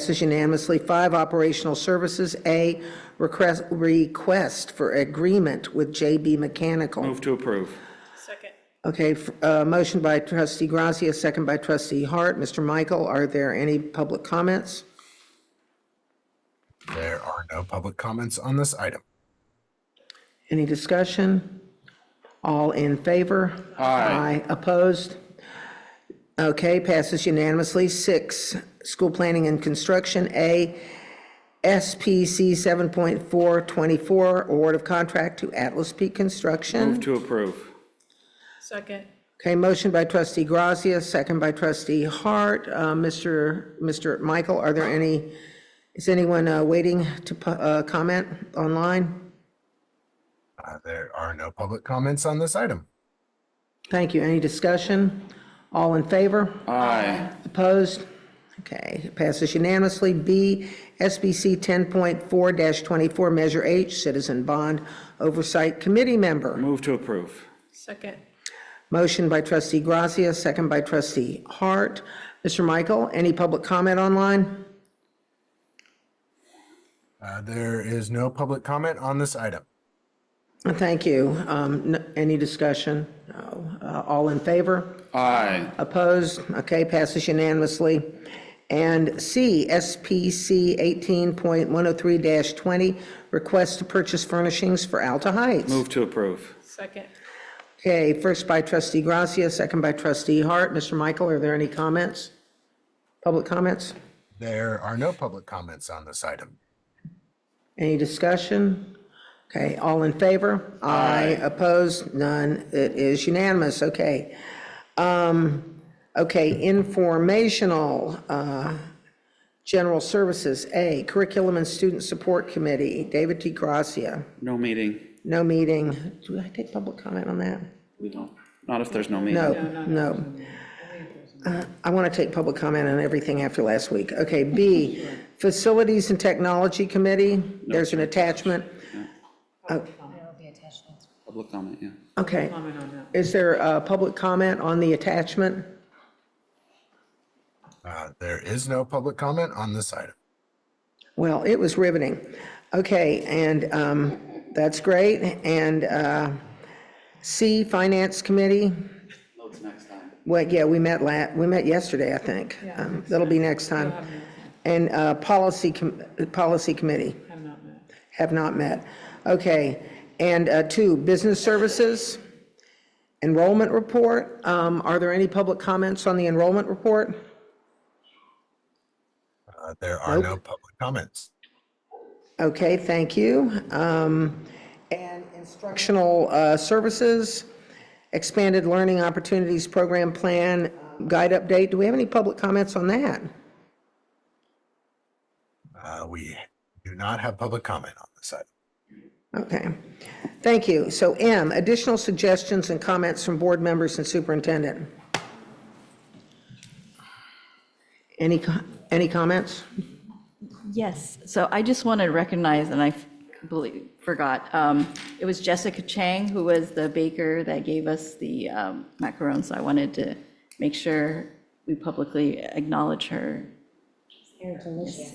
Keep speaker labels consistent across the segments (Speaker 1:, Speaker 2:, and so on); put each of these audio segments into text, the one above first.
Speaker 1: passes unanimously. Five, operational services. A, request, request for agreement with JB Mechanical.
Speaker 2: Move to approve.
Speaker 3: Second.
Speaker 1: Okay, f- uh, motion by trustee Gracia, second by trustee Hart. Mr. Michael, are there any public comments?
Speaker 4: There are no public comments on this item.
Speaker 1: Any discussion? All in favor? Aye. Opposed? Okay, passes unanimously. Six, school planning and construction. A, SPC 7.424, award of contract to Atlas Peak
Speaker 2: Move
Speaker 1: Construction.
Speaker 2: to approve.
Speaker 3: Second.
Speaker 1: Okay, motion by trustee Gracia, second by trustee Hart. Uh, Mr. Mr. Michael, are there any, is anyone uh, waiting to pu- uh, comment online?
Speaker 4: Uh, There are no public comments on this item.
Speaker 1: Thank you. Any discussion? All in favor?
Speaker 2: Aye.
Speaker 1: Opposed? Okay, it passes unanimously. B, SBC 10.4-24, Measure H, Citizen Bond Oversight Committee Member.
Speaker 2: Move to approve.
Speaker 3: Second.
Speaker 1: Motion by trustee Gracia, second by trustee Hart. Mr. Michael, any public comment online?
Speaker 4: Uh, There is no public comment on this item.
Speaker 1: Thank you. Um, n- Any discussion? No. Uh, All in favor?
Speaker 2: Aye.
Speaker 1: Opposed? Okay, passes unanimously. And C, SPC 18.103-20, request to purchase furnishings for Alta Heights.
Speaker 2: Move to approve.
Speaker 3: Second.
Speaker 1: Okay, first by trustee Gracia, second by trustee Hart. Mr. Michael, are there any comments? Public comments?
Speaker 4: There are no public comments on this item.
Speaker 1: Any discussion? Okay, all in favor? Aye. Opposed? None. It is unanimous. Okay. Um, Okay, informational, uh, general services, A, Curriculum and Student Support Committee, David T. Gracia.
Speaker 2: No meeting.
Speaker 1: No meeting. Do I take public comment on that?
Speaker 2: We don't, not if there's no meeting.
Speaker 1: No, no. Uh, I want to take public comment on everything after last week. Okay, B, Facilities and Technology Committee, there's an attachment.
Speaker 2: Public comment, yeah.
Speaker 1: Oh, Okay,
Speaker 3: Comment on that.
Speaker 1: is there a public comment on the attachment?
Speaker 4: Uh, There is no public comment on this item.
Speaker 1: Well, it was riveting. Okay, and um, that's great. And uh, C, Finance Committee,
Speaker 2: Votes next time.
Speaker 1: well, yeah, we met la, we met yesterday, I think. Um, That'll be next time. And uh, Policy, Com- Policy Committee.
Speaker 3: Have not met.
Speaker 1: Have not met. Okay. And uh, two, business services, enrollment report. Um, Are there any public comments on the enrollment report?
Speaker 4: Uh, There are no public comments.
Speaker 1: Okay, thank you. Um, And instructional uh, services, expanded learning opportunities program plan, guide update. Do we have any public comments on that?
Speaker 4: Uh, We do not have public comment on this item.
Speaker 1: Okay. Thank you. So M, additional suggestions and comments from board members and superintendent. Any, co- any comments?
Speaker 5: Yes, so I just want to recognize, and I f- believe, forgot, um, it was Jessica Chang who was the baker that gave us the um, macarons, so I wanted to make sure we publicly acknowledge her.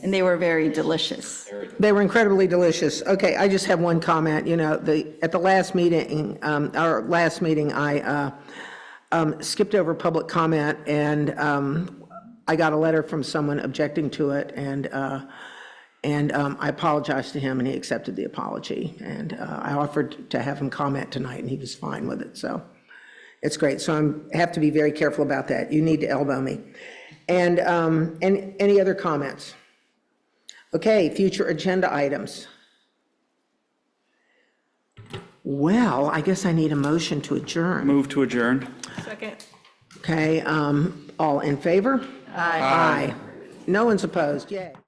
Speaker 5: And they were very delicious.
Speaker 1: They were incredibly delicious. Okay, I just have one comment, you know, the, at the last meeting, um, our last meeting, I uh, um, skipped over public comment, and um, I got a letter from someone objecting to it, and, uh, and um, I apologized to him, and he accepted the apology, and uh, I offered to have him comment tonight, and he was fine with it, so it's great. So I'm, have to be very careful about that. You need to elbow me. And, um, and any other comments? Okay, future agenda items. Well, I guess I need a motion to adjourn.
Speaker 2: Move to adjourn.
Speaker 3: Second.
Speaker 1: Okay, um, all in favor? Aye. Aye. No one's opposed, yay.